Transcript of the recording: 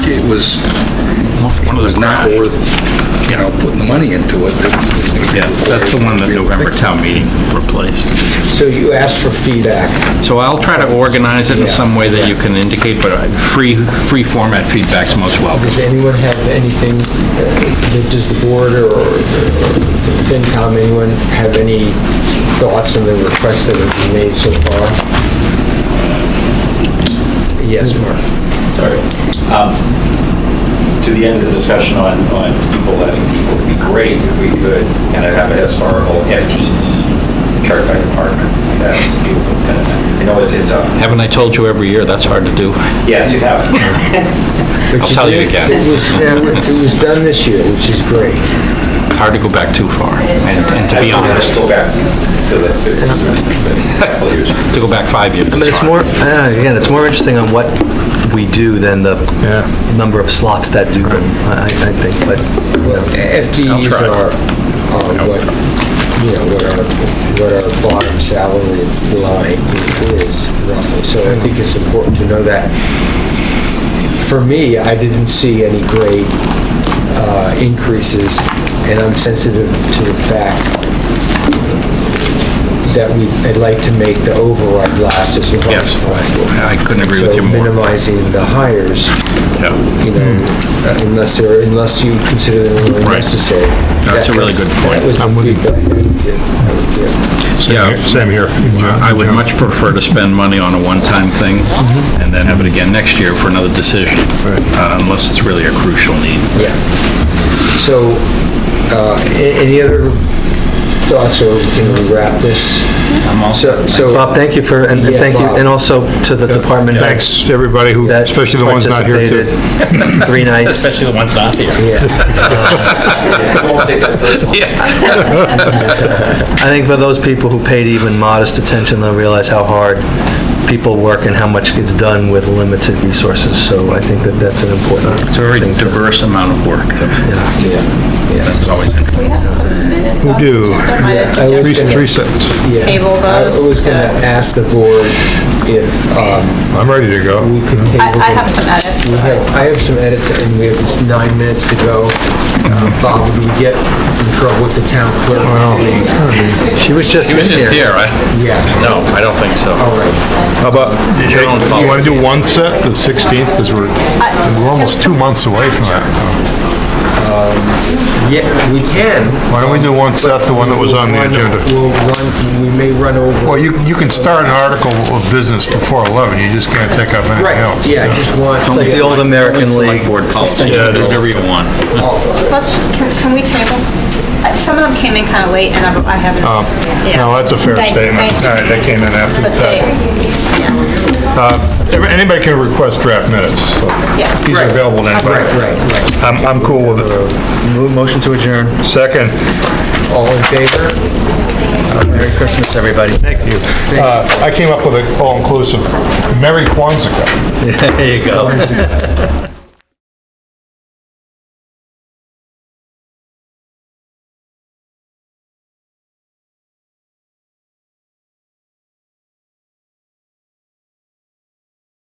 was, was not worth, you know, putting the money into it. Yeah, that's the one that November town meeting replaced. So you asked for feedback. So I'll try to organize it in some way that you can indicate, but I- free, free format feedback's most welcome. Does anyone have anything, uh, does the board or or FinCom, anyone have any thoughts on the requests that have been made so far? Yes, Mark. Sorry. Um, To the end of the discussion on, on people letting people, it'd be great if we could kind of have a historical FTE chart by department. That's a beautiful. kind of- I know it's, it's, uh, Haven't I told you every year, that's hard to do? yes, you have. I'll tell you again. It was, yeah, it was done this year, which is great. Hard to go back too far, and and to be honest, Go back to the, to the couple years. to go back five years. But it's more, uh, again, it's more interesting on what we do than the number of slots that do them, I, I think, but, Well, FTEs try. are, are what, you know, what our, what our bottom salary line is roughly, so I think it's important to know that. For me, I didn't see any great uh, increases, and I'm sensitive to the fact that we, I'd like to make the override last as long Yes, as possible. I couldn't agree with you So more. minimizing the hires, Yeah. you know, uh, unless they're, unless you consider them really Right. necessary. That's a That really was- good point. That was the I'm with you. feedback I would give- I would give. Yeah. Same here- same here. I would much prefer to spend money on a one-time thing and then have it again next year for another decision, uh, unless it's really a crucial need. Yeah. So, uh, a- any other thoughts, or can we wrap this? I'm all set. Bob, thank you for, and and Yeah, thank you, Bob. and also to the department heads Thanks, everybody who, that especially the ones not here too. participated three nights. the ones not here. I won't take that personal. I think for those people who paid even modest attention, they'll realize how hard people work and how much gets done with limited resources, so I think that that's an important It's a very diverse amount of work. That's always interesting. We have some minutes We on the do. agenda. Might I I was Three suggest we gonna- three get- sets. Yeah. Table I those was gonna to- ask the board if, um, I'm ready to go. we could table. I, I them. have some edits. We but- have, I have some edits, and we have just nine minutes to go. Uh, Bob, would we get in trouble with the town clerk? She was just He was just in here. here, right? Yeah, No, I don't think so. all right. How about, Your own fault. you want to do one set, the 16th, because we're, we're almost two months away from that. Yeah, we can. Why don't we do one set, the one that was on the We'll run- agenda? We'll run, we may run over. Well, you, you can start an article of business before 11, you just can't take up anything Right, else. yeah, I just want. Like the old American League. Yeah, do whatever you want. Let's just, can, can we table? Uh, Some of them came in kind of late and I I haven't. yeah. Oh. No, that's a fair Thank- statement. thank you. All right, that came in after the But they, fact. Uh, Anybody can request draft minutes. so yeah. These are available to anybody. Right, right, right. I'm, I'm cool with it. Move Motion to adjourn. Second, All in favor? Merry Christmas, everybody. Thank you. uh, I came up with an all-inclusive, Merry Kwanzaa. There you go.